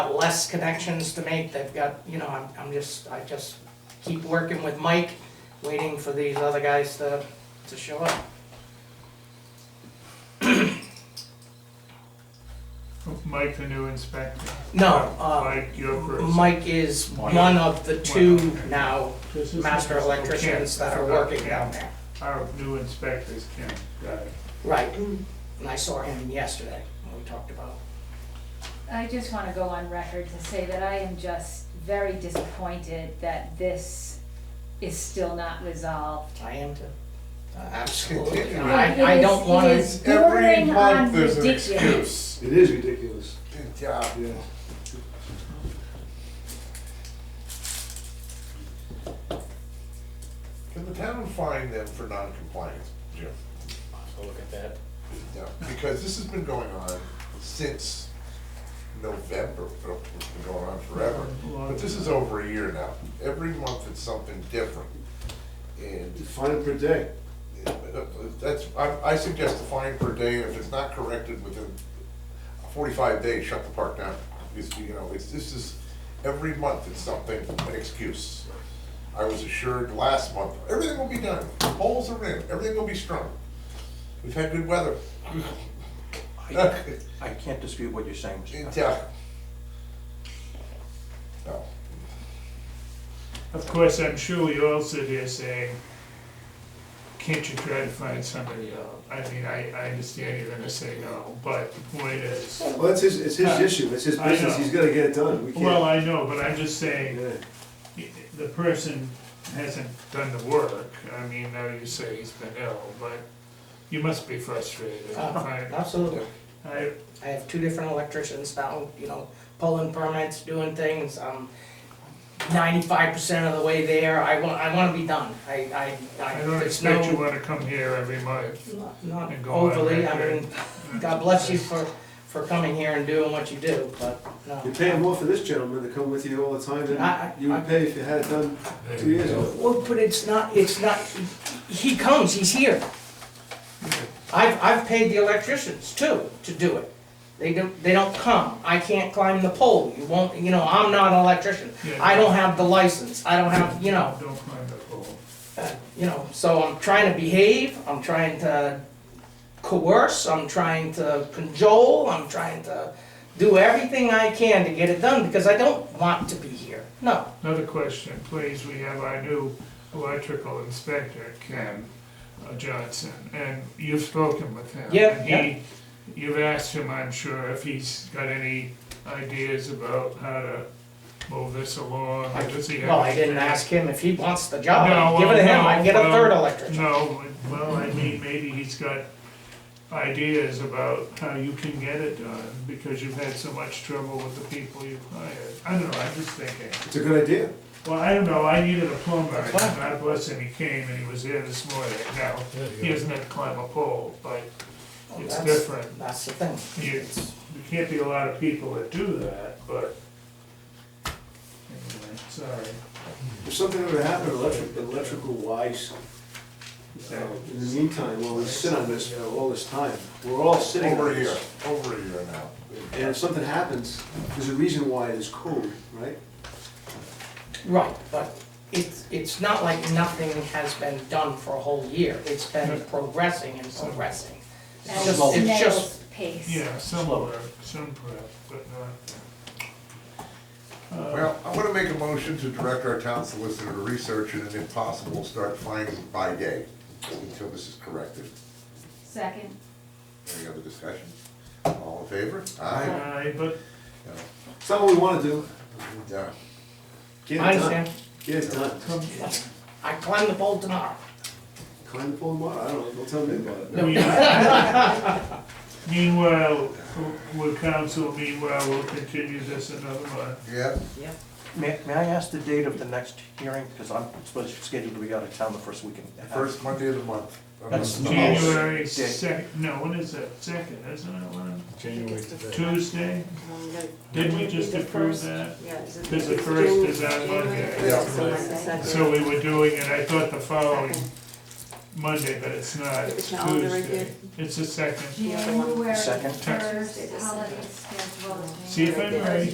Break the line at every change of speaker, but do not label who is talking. got less connections to make, they've got, you know, I'm, I'm just, I just keep working with Mike, waiting for these other guys to, to show up.
Mike, the new inspector.
No, uh,
Mike, your person.
Mike is
Mike.
one of the two
okay.
now
This is-
master electricians that are working down there.
Our new inspectors, Kim, got it.
Right, and I saw him yesterday, when we talked about,
I just want to go on record to say that I am just very disappointed that this is still not resolved.
I am too. Uh, Absolutely,
It
I, I
is-
don't wanna.
It is
Every
bordering
month
on
there's an
ridiculous.
It is ridiculous.
Good job.
Yeah.
Can the town fine them for non-compliance, Jim?
I'll look at that.
No, because this has been going on since November, or it's been going on forever. But this is over a year now. Every month it's something different. And
It's fine per day.
that's, I, I suggest a fine per day, if it's not corrected within forty-five days, shut the park down. Because, you know, it's, this is, every month it's something, an excuse. I was assured last month, everything will be done, poles are in, everything will be strung. We've had good weather.
I I can't dispute what you're saying, Mr. Tucker.
Yeah. No.
Of course, I'm sure you're also there saying, can't you try to find somebody else? I mean, I, I understand you're gonna say no, but the point is,
Well, that's his, it's his issue, it's his
I
business,
know.
he's gotta get it done, we
well,
can't.
I know, but I'm just saying,
Yeah.
the person hasn't done the work. I mean, now you say he's been ill, but you must be frustrated.
Uh,
I,
Absolutely.
I,
I have two different electricians now, you know, pulling permits, doing things, I'm ninety-five percent of the way there, I want, I wanna be done, I, I, I.
I don't
there's
expect
no-
you wanna come here every month.
not- Not
and go on
overly, I
record.
mean, God bless you for, for coming here and doing what you do, but, no.
You're paying more for this gentleman to come with you all the time
I-
than
I-
you would pay if you had it done two years ago.
Well, but it's not, it's not, he comes, he's here. I've, I've paid the electricians too to do it. They don't, they don't come. I can't climb the pole. You won't, you know, I'm not an electrician.
Yeah.
I don't have the license. I don't have, you know,
Don't climb the pole.
uh, you know, so I'm trying to behave. I'm trying to coerce. I'm trying to cajole. I'm trying to do everything I can to get it done because I don't want to be here. No.
Another question, please, we have our new electrical inspector, Ken uh, Johnson, and you've spoken with him.
Yeah,
And
yeah.
he- You've asked him, I'm sure, if he's got any ideas about how to move this along, or does he have?
Well, I didn't
any-
ask him if he wants the job.
No,
Give it to
well,
him,
no,
I'd get a
well,
third electrician.
No, well, I mean, maybe he's got ideas about how you can get it done, because you've had so much trouble with the people you've hired. I don't know, I'm just thinking.
It's a good idea.
Well, I don't know, I needed a plumber, and God bless him, he came and he was there this morning, now, he doesn't have to climb a pole, but it's
That's-
different.
That's the thing.
You, there can't be a lot of people that do that, but, anyway, sorry.
If something ever happened electric, electrical wise, uh, in the meantime, while we sit on this for all this time, we're all sitting
Over
on
a year,
this.
over a year now.
And if something happens, there's a reason why it is code, right?
Right, but it's, it's not like nothing has been done for a whole year. It's been progressing and progressing. It's
At
just,
a
it's just,
snail's pace.
Yeah, some work, some prep, but not. uh,
Well, I'm gonna make a motion to direct our town solicitor to research and if possible, start finding by day until this is corrected.
Second,
Any other discussion? All in favor? Aye.
I- but
It's not what we wanna do,
Yeah.
get it done.
I understand.
Get it done.
come,
I climb the pole tomorrow.
Climb the pole tomorrow, I don't know, don't tell me about it.
Meanwhile- Meanwhile, with council, meanwhile, we'll continue this another month.
Yeah,
Yep.
May, may I ask the date of the next hearing? Because I'm supposed to schedule to be out of town the first weekend.
first Monday of the month.
That's
Um,
January
Yeah.
second, no, when is that, second, isn't it, when? Tuesday? Didn't we just approve that?
Yeah. it's the-
Because the first is on Monday.
Yeah.
So it's the second.
So we were doing it, I thought the following Monday, but it's not, it's
It's not on the regular-
Tuesday. It's the second.
The other one.
January
Second.
first, holiday schedule.
See if I'm right.